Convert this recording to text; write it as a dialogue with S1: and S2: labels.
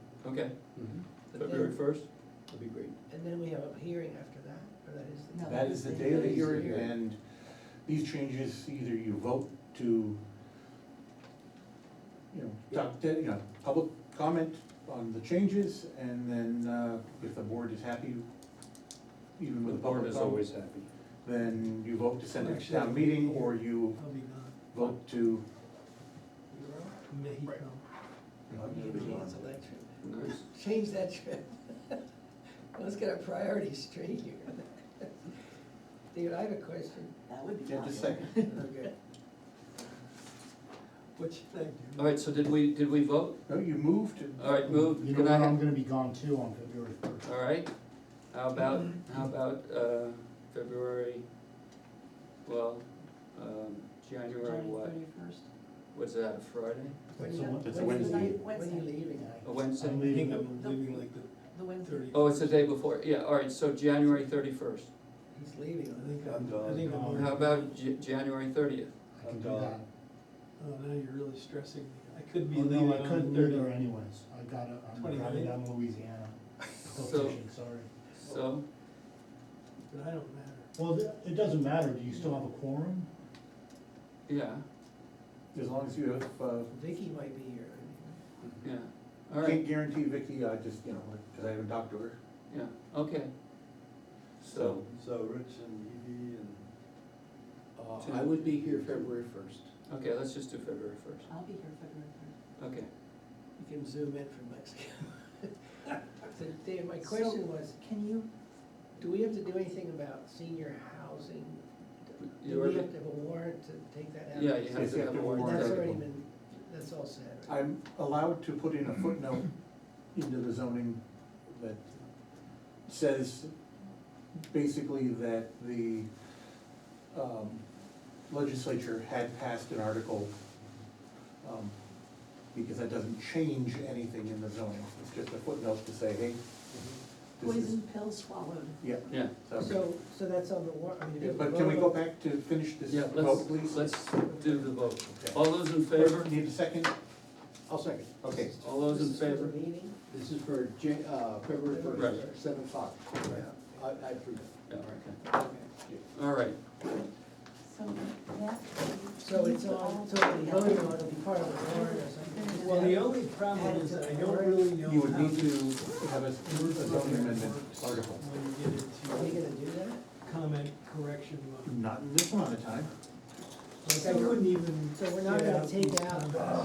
S1: Okay,
S2: But
S1: February
S2: then,
S1: first?
S2: that'd be great.
S3: and then we have a hearing after that, or that is the.
S4: No,
S5: That is the day of the hearing, and these changes, either you vote to, you know, talk, to- you know, public comment on the changes, and then, uh, if the board is happy, even
S1: The
S5: with the
S1: board
S5: public
S1: is always
S5: comment,
S1: happy.
S5: then you vote to send it to town meeting, or you
S3: Probably not.
S5: vote to.
S3: Mexico. Maybe cancel that trip.
S1: Nice.
S3: Change that trip. Let's get our priorities straight here. David, I have a question.
S4: That would be
S5: Yeah, just
S4: popular.
S5: second.
S3: Okay. What should I do?
S1: All right, so did we, did we vote?
S5: No, you move to.
S1: All right, move.
S6: Mm-hmm. You know
S1: Can
S6: what,
S1: I
S6: I'm
S1: have-
S6: gonna be gone too on February first.
S1: All right, how about, how about, uh, February, well, um, January what?
S4: January 31st.
S1: Was that a Friday?
S3: When
S6: It's
S3: you-
S6: a Wed-
S5: it's a
S3: when you-
S5: Wednesday.
S3: When are you
S4: Wednesday.
S3: leaving,
S1: A
S3: I?
S1: Wednesday?
S6: I'm leaving,
S4: I'm leaving like the Wednesday.
S1: Oh, it's the day before, yeah, all right, so January thirty-first.
S3: He's leaving, I think.
S2: I'm
S6: I
S2: done.
S6: think I'm-
S1: How about J- January thirtieth?
S6: I can do
S2: I'm
S6: that.
S2: gone.
S7: Oh, now you're really stressing me. I could be
S6: Oh,
S7: leaving on
S6: no,
S7: the um,
S6: I
S7: thirty.
S6: couldn't leave there anyways, I gotta, I'm
S7: 29th?
S6: driving down to Louisiana,
S1: So,
S6: vacation, sorry.
S1: so,
S7: But I don't matter.
S6: Well, th- it doesn't matter, do you still have a quorum?
S1: yeah,
S5: As long as you have, uh,
S3: Vicky might be here.
S1: yeah, all
S5: can't
S1: right,
S5: guarantee Vicky, I just, you know, cause I haven't talked to her,
S1: yeah, okay. So,
S2: So Rich and Evie and,
S1: Two.
S2: uh, I would be here February first.
S1: okay, let's just do February first,
S4: I'll be here February first.
S1: okay.
S3: You can zoom in from Mexico. So David, my question was,
S4: Can you,
S3: do we have to do anything about senior housing?
S1: You
S3: Do we
S1: already-
S3: have to have a warrant to take that out?
S1: Yeah, you have
S5: Yes,
S1: to have a
S3: And
S1: warrant
S3: That's
S1: article.
S3: already been, that's all said, right?
S5: I'm allowed to put in a footnote into the zoning that says basically that the um, legislature had passed an article, um, because that doesn't change anything in the zoning, it's just a footnote to say, hey, this is,
S4: poison pill swallowed?
S5: yeah,
S1: Yeah,
S5: so.
S3: So, so that's on the war, I mean. if we
S5: But can we
S3: vote
S5: go
S3: on-
S5: back to finish this
S1: yeah,
S5: vote,
S1: let's,
S5: please?
S1: let's do the vote.
S5: Okay.
S1: All those in favor?
S5: Need a second? I'll second. Okay.
S1: All those in
S3: This is for the
S1: favor?
S3: meeting?
S2: This is for Jan, uh, February
S1: Right.
S2: first, seven o'clock. I, I approve.
S1: Yeah, okay.
S2: Okay.
S1: All right,
S4: So that.
S3: So it's all, so we voted on, it'll be part of the warrant or something.
S7: Well, the only problem is that I don't really know
S5: You would
S7: how
S5: need
S7: to,
S5: to have a a zoning amendment article.
S7: when you get
S3: Are we
S7: into
S3: gonna do that?
S7: comment correction mode.
S5: Not in this amount of time.
S7: Like, I couldn't even.
S3: So we're not gonna
S7: get
S3: take
S7: these
S3: out
S7: comments.